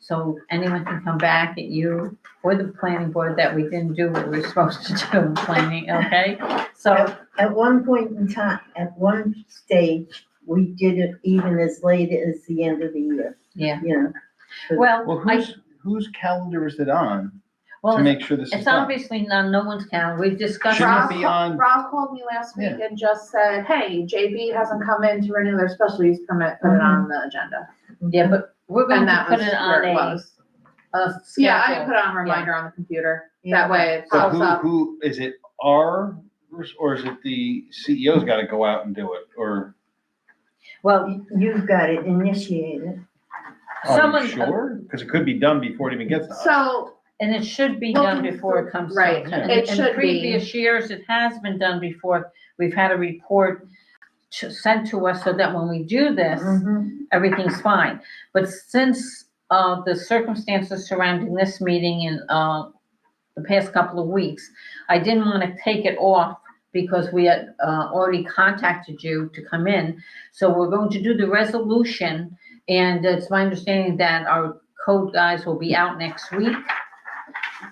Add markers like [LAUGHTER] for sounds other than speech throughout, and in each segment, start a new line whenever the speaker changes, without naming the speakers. so anyone can come back at you or the planning board that we didn't do what we we're [LAUGHS] supposed to do in planning, okay? So,
At one point in time, at one stage, we did it even as late as the end of the year,
yeah,
you know.
well,
Well,
I,
whose, whose calendar is it on
well,
to
it's-
make sure this is
it's
done?
obviously not, no one's count, we've discussed.
Shouldn't
Rob
it be
ca-
on-
Rob called me last week and just said, hey, JB hasn't come in to renew their special use permit, put
Mm-hmm.
it on the agenda.
Yeah, but we're going
And
to
that
put
was
it
where
on
it
a,
was.
a
Yeah, I put
schedule.
it on a reminder on the computer.
Yeah.
That way it
So
pops
who,
up.
who, is it our, res- or is it the CEO's gotta go out and do it, or
Well,
You've got it initiated.
are
Someone-
you sure? Cause it could be done before it even gets to us.
So,
and it should be
Well,
done before it comes. to
right,
us.
it
In- In
should be.
previous years, it has been done before, we've had a report to- sent to us so that when we do this,
Mm-hmm.
Mhm.
everything's fine. But since uh, the circumstances surrounding this meeting in uh, the past couple of weeks, I didn't want to take it off because we had uh, already contacted you to come in. So we're going to do the resolution, and it's my understanding that our code guys will be out next week.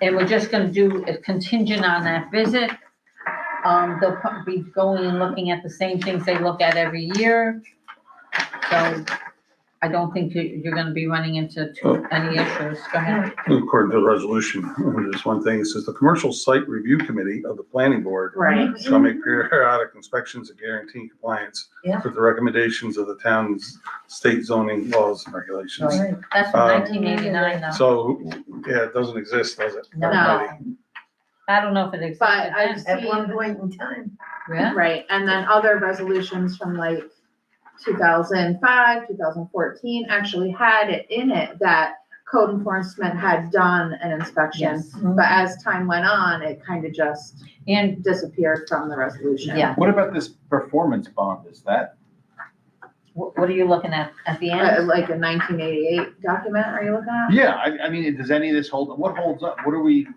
And we're just going to do a contingent on that visit. Um, They'll pro- be going and looking at the same things they look at every year. So I don't think you- you're gonna be running into too- any issues. Go ahead.
According to the resolution, there's one thing, it says the Commercial Site Review Committee of the Planning Board
right,
shall make periodic inspections and guarantee compliance
Yeah.
with the recommendations of the town's state zoning laws and regulations.
Right.
That's from
Uh,
1989 though.
So, yeah, it doesn't exist, does it?
No. I don't know if it exists.
But I've
At one
seen,
point in time.
Yeah,
right, and then other resolutions from like two thousand five, two thousand fourteen actually had it in it that code enforcement had done an inspection.
yes.
But as time went on, it kind of just
Mm-hmm. And,
disappeared from the resolution.
yeah,
What about this performance bond, is that,
what, what are you looking at? At the
Uh,
end?
Like a nineteen eighty-eight document, are you looking at?
yeah, I, I mean, does any of this hold, what holds up, what are we? 'cause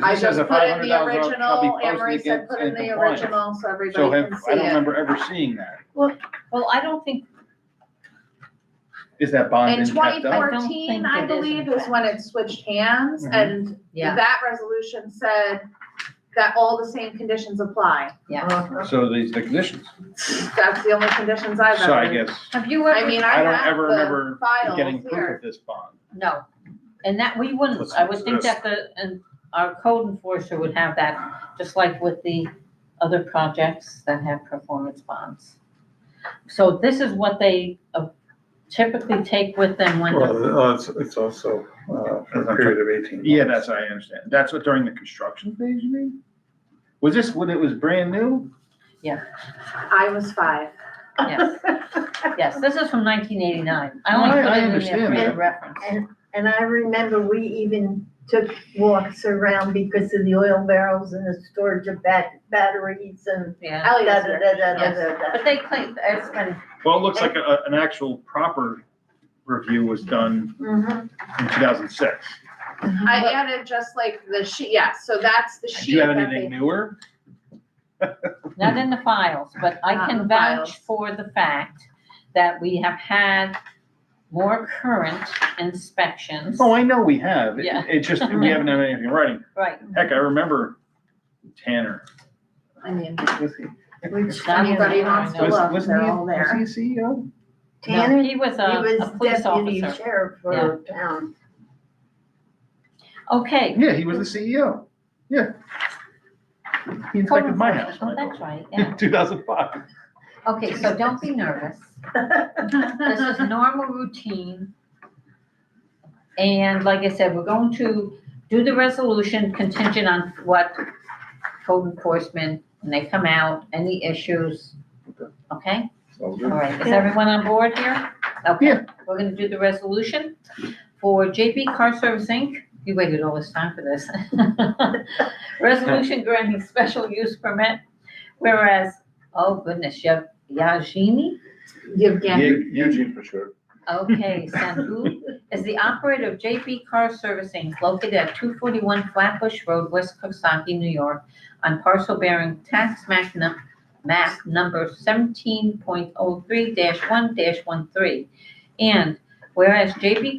I
this has
just
a
put in the
$500 shall be
original,
posted
Anne-Marie said
against
put in the
compliance.
original, so
So
everybody
have,
can see
I don't
it.
remember ever seeing that,
Well, I don't think,
is that bond
In
been kept up?
twenty
I don't think
fourteen,
it
I
is,
believe,
in
is when it switched hands,
Mhm.
and
yeah,
that resolution said that all the same conditions apply.
yeah.
Uh-huh.
So these are the conditions,
That's the only conditions I've
so I
ever,
guess.
Have you
I
ever,
mean,
I
I
don't ever remember
have the
getting
files
proof
here.
of this bond.
no. And that, we wouldn't, I would think that the, and our code enforcer would have that, just like with the other projects that have performance bonds. So this is what they uh, typically take with them when they're
Well, uh, it's, it's also, uh, for a period of eighteen months.
Yeah, that's, what I understand. That's what during the construction phase, you mean? Was this when it was brand new?
I was five.
Yes, yes, this is from nineteen eighty-nine. I only
I-
put
I
it in there
understand
for your
that.
reference.
[LAUGHS] And I remember we even took walks around because of the oil barrels and the storage of bat- batteries and
Yeah,
Ellie was here.
but
da-da-da-da-da-da-da.
they claim, it's been,
Well, it looks like a, an actual proper review was done
Mhm.
in two thousand six.
I added just like the sheet, yeah, so that's the
Do
sheet
you have
that they
anything newer?
not in the files, but I
Not in
can
the files.
vouch for the fact that we have had more current inspections.
Oh, I know we have. It-
Yeah.
It's just, we haven't had anything in writing.
Right,
Heck, I remember Tanner.
I mean,
Was he,
Which,
Not in
anybody
there,
wants
I know.
to
was,
look,
wasn't
they're
he,
all there.
was he a E CEO?
no,
Tanner, he
he was a,
was
a police
deputy
officer.
sheriff for town.
Okay.
Yeah, he was the CEO. Yeah. He
code
inspected my house,
enforcement. Oh,
Michael,
that's right,
[LAUGHS]
yeah.
in two thousand five.
Okay, so don't be nervous. This is normal routine. And like I said, we're going to do the resolution contingent on what code enforcement, when they come out, any issues. Okay, all right, is
Yeah.
everyone on board here? Okay,
Yeah.
we're gonna do the resolution for JP Car Service Inc. You waited all this time for this. [LAUGHS] Resolution granting special use permit, whereas, oh goodness, Yav- Yajini?
Yevgen,
Eugene for sure.
Okay, Sanhu is the operator of JP Car Servicing located at two forty-one Flatbush Road, West Coxsackie, New York, on parcel bearing tax map num- map number seventeen point oh three one 13 And whereas JP